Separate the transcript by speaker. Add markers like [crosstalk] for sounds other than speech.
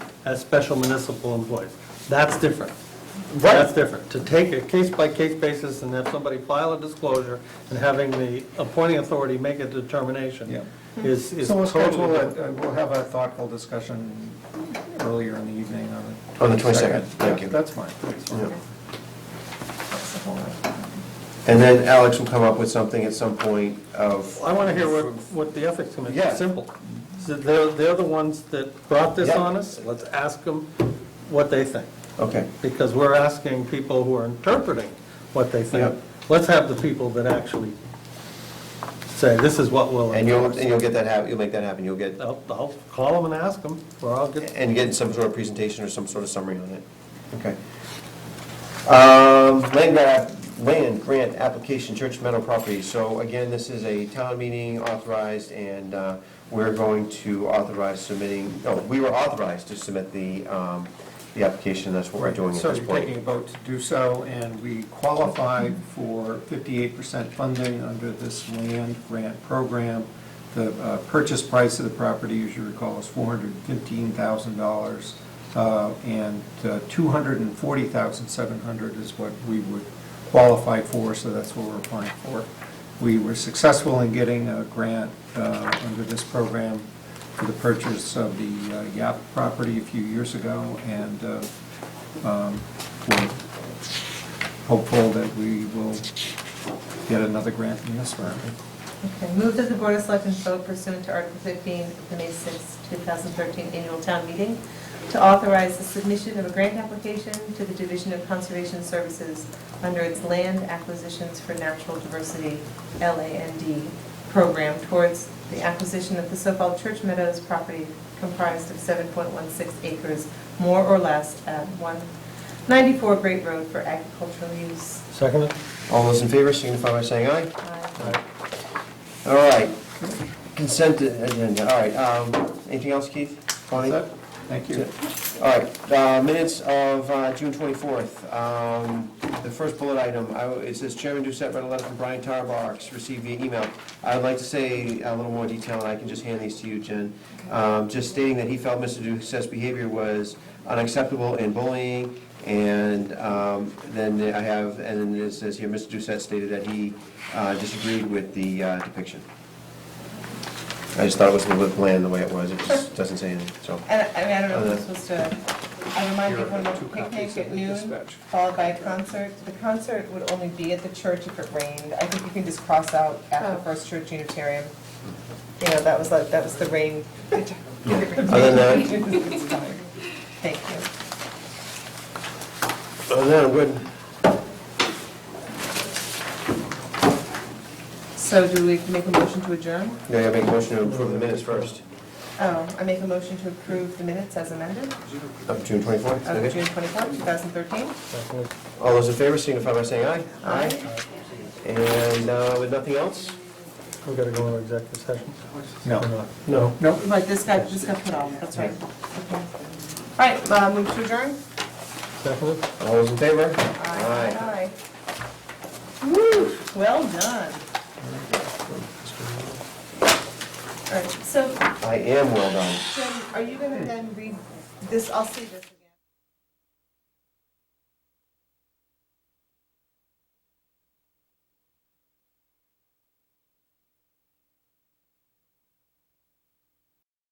Speaker 1: as special municipal employees. That's different.
Speaker 2: Right.
Speaker 1: That's different. To take a case-by-case basis and have somebody file a disclosure and having the appointing authority make a
Speaker 2: Yeah.
Speaker 1: determination is is
Speaker 2: So we'll schedule,
Speaker 1: totally
Speaker 2: a-
Speaker 1: different.
Speaker 2: uh, we'll have a thoughtful discussion earlier in the evening on the.
Speaker 3: On the 22nd, thank
Speaker 2: Yeah,
Speaker 3: you.
Speaker 2: That's fine, that's fine.
Speaker 3: Yeah.
Speaker 2: That's the whole-
Speaker 3: And then Alex will come up with something at some point of,
Speaker 1: I want to hear what, what the ethics committee,
Speaker 2: Yeah.
Speaker 1: simple. So They're, they're the ones that brought this
Speaker 3: Yeah.
Speaker 1: on us, let's ask them what they think.
Speaker 3: okay,
Speaker 1: because we're asking people who are interpreting what they think.
Speaker 3: Yep.
Speaker 1: Let's have the people that actually say, this is what we'll
Speaker 3: and you'll,
Speaker 1: endorse.
Speaker 3: and you'll get that hap, you'll make that happen, you'll get,
Speaker 1: I'll, I'll call them and ask them, or I'll get,
Speaker 3: and get some sort of presentation or some sort of summary on it, okay. Um, Land grant, land grant application, Church Meadow property, so again, this is a town meeting authorized, and uh, we're going to authorize submitting, no, we were authorized to submit the, um, the application, that's what we're doing at
Speaker 2: So
Speaker 3: this
Speaker 2: you're taking a
Speaker 3: point.
Speaker 2: vote to do so, and we qualified for 58% funding under this land grant program. The uh, purchase price of the property, as you recall, is $415,000, uh, and uh, $240,700 is what we would qualify for, so that's what we're applying for. We were successful in getting a grant uh, under this program for the purchase of the uh, Yap property a few years ago, and uh, Um, we're hopeful that we will get another grant in this round.
Speaker 4: Okay, move that the Board of Selectmen vote pursuant to Article 15 of the May 6, 2013 Annual Town Meeting to authorize the submission of a grant application to the Division of Conservation Services under its Land Acquisitions for Natural Diversity, LAND, program towards the acquisition of the so-called Church Meadows property comprised of 7.16 acres, more or less, at 194 Great Road for agricultural use.
Speaker 1: second it?
Speaker 3: All those in favor, signify by saying aye.
Speaker 4: Aye.
Speaker 3: All right, consent agenda, all right, um, anything else, Keith? Bonnie?
Speaker 2: Thank you.
Speaker 3: All right, uh, minutes of uh, June 24th. Um, The first bullet item, I w- it says Chairman Doucette read a letter from Brian Tarbox, received via email. I would like to say a little more detail, and I can just hand these to you, Jen. Um, Just stating that he felt Mr. Doucette's behavior was unacceptable and bullying, and um, then I have, and then it says here, Mr. Doucette stated that he uh, disagreed with the uh, depiction. I just thought it was a little bit bland the way it was, it just doesn't say anything, so.
Speaker 4: And I I mean, I don't
Speaker 3: Uh,
Speaker 4: know if we're supposed to, I remind you, everyone of a picnic at noon, followed by a concert. The concert would only be at the church if it rained. I think you can just cross out at the First Church Unitarian. You know, that was like, that was the rain. [laughs]
Speaker 3: Other than that,
Speaker 4: Thank you.
Speaker 3: other than that, I'm good.
Speaker 4: So do we make a motion to adjourn?
Speaker 3: Yeah, I make a motion to approve the minutes first,
Speaker 4: Oh, I make a motion to approve the minutes as amended
Speaker 3: of June 24th.
Speaker 4: of
Speaker 3: Okay.
Speaker 4: June 24, 2013.
Speaker 1: Second it.
Speaker 3: All those in favor signify by saying aye.
Speaker 4: Aye.
Speaker 3: And uh, with nothing else?
Speaker 1: We gotta go into executive session? Or
Speaker 2: No.
Speaker 1: not? No.
Speaker 2: Nope.
Speaker 4: Right, this got, this got put off, that's right. Okay. All right, uh, move to adjourn?
Speaker 1: Second it?
Speaker 3: All those in favor?
Speaker 4: Aye. Woo, well done. All right, so
Speaker 3: I am well done.
Speaker 4: Jim, are you gonna then read this, I'll see this.